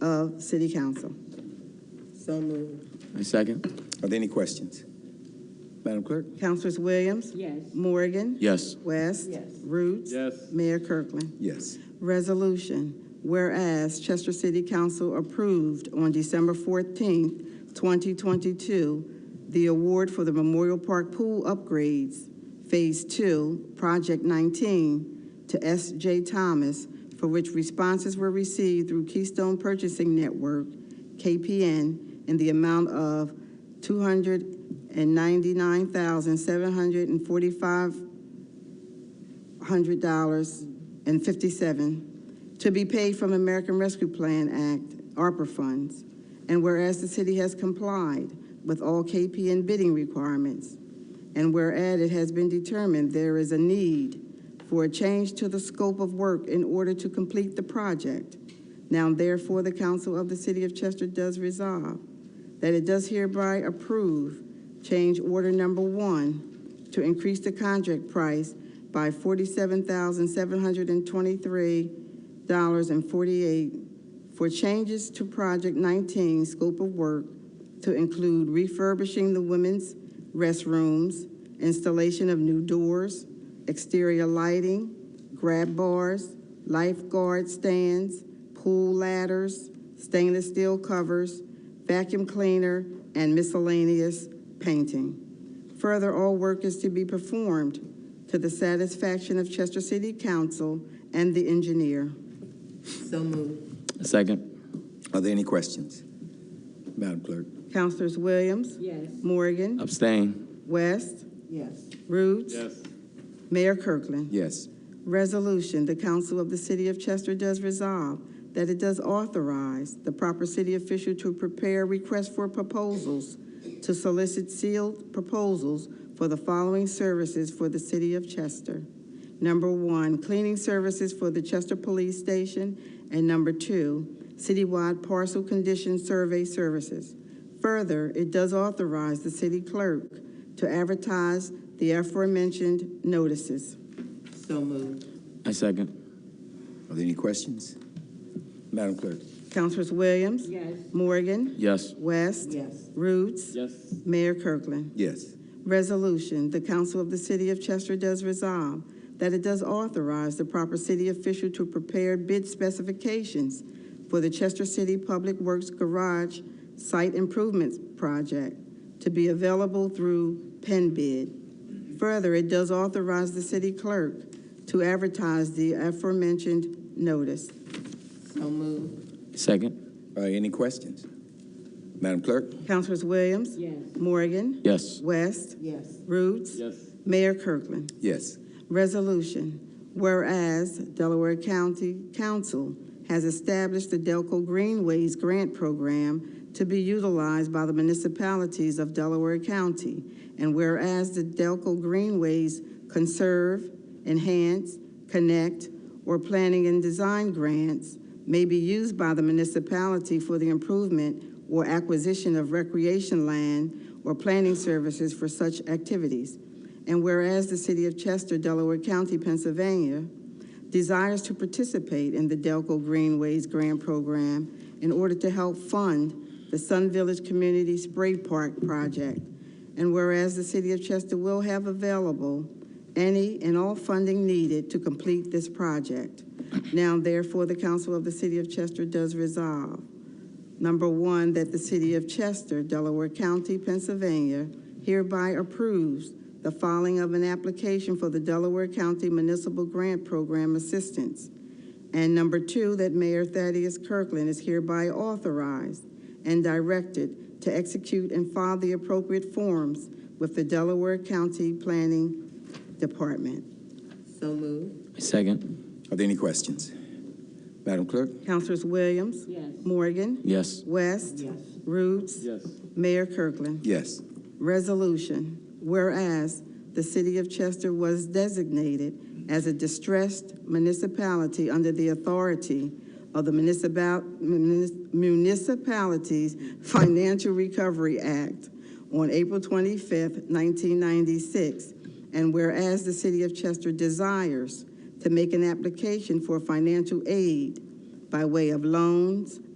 of City Council. So moved. I second. Are there any questions? Madam Clerk? Councilors Williams? Yes. Morgan? Yes. West? Yes. Roots? Yes. Mayor Kirkland? Yes. Resolution, whereas Chester City Council approved on December 14th, 2022, the award for the Memorial Park Pool Upgrades, Phase 2, Project 19, to S.J. Thomas, for which responses were received through Keystone Purchasing Network, KPN, in the amount of $299,745 and 57, to be paid from American Rescue Plan Act, ARPA funds. And whereas the city has complied with all KPN bidding requirements, and whereas it has been determined there is a need for a change to the scope of work in order to complete the project, now therefore the council of the city of Chester does resolve that it does hereby approve change order number one to increase the contract price by forty-seven thousand, seven hundred and twenty-three dollars and forty-eight for changes to Project nineteen scope of work to include refurbishing the women's restrooms, installation of new doors, exterior lighting, grab bars, lifeguard stands, pool ladders, stainless steel covers, vacuum cleaner, and miscellaneous painting. Further, all work is to be performed to the satisfaction of Chester City Council and the engineer. So moved. I second. Are there any questions? Madam Clerk? Councilors Williams, Yes. Morgan, Abstain. West, Yes. Roots, Yes. Mayor Kirkland. Yes. Resolution, the council of the city of Chester does resolve that it does authorize the proper city official to prepare requests for proposals to solicit sealed proposals for the following services for the city of Chester. Number one, cleaning services for the Chester Police Station, and number two, citywide parcel condition survey services. Further, it does authorize the city clerk to advertise the aforementioned notices. So moved. I second. Are there any questions? Madam Clerk? Councilors Williams? Yes. Morgan? Yes. West? Yes. Roots? Yes. Mayor Kirkland? Yes. Resolution, the council of the city of Chester does resolve that it does authorize the proper city official to prepare bid specifications for the Chester City Public Works Garage Site Improvements Project to be available through Penn Bid. Further, it does authorize the city clerk to advertise the aforementioned notice. So moved. Second. Are there any questions? Madam Clerk? Councilors Williams? Yes. Morgan? Yes. West, Yes. Roots, Yes. Mayor Kirkland. Yes. Resolution, whereas Delaware County Council has established the Delco Greenways Grant Program to be utilized by the municipalities of Delaware County, and whereas the Delco Greenways Conserve, Enhance, Connect, or Planning and Design Grants may be used by the municipality for the improvement or acquisition of recreation land or planning services for such activities. And whereas the City of Chester, Delaware County, Pennsylvania, desires to participate in the Delco Greenways Grant Program in order to help fund the Sun Village Community Spray Park Project. And whereas the City of Chester will have available any and all funding needed to complete this project. Now therefore, the Council of the City of Chester does resolve Number one, that the City of Chester, Delaware County, Pennsylvania hereby approves the filing of an application for the Delaware County Municipal Grant Program Assistance. And number two, that Mayor Thaddeus Kirkland is hereby authorized and directed to execute and file the appropriate forms with the Delaware County Planning Department. So moved. I second. Are there any questions? Madam Clerk? Councilors Williams, Yes. Morgan, Yes. West, Yes. Roots, Yes. Mayor Kirkland. Yes. Resolution, whereas the city of Chester was designated as a distressed municipality under the authority of the Municipal- Munis- Municipalities Financial Recovery Act on April 25th, 1996, and whereas the city of Chester desires to make an application for financial aid by way of loans,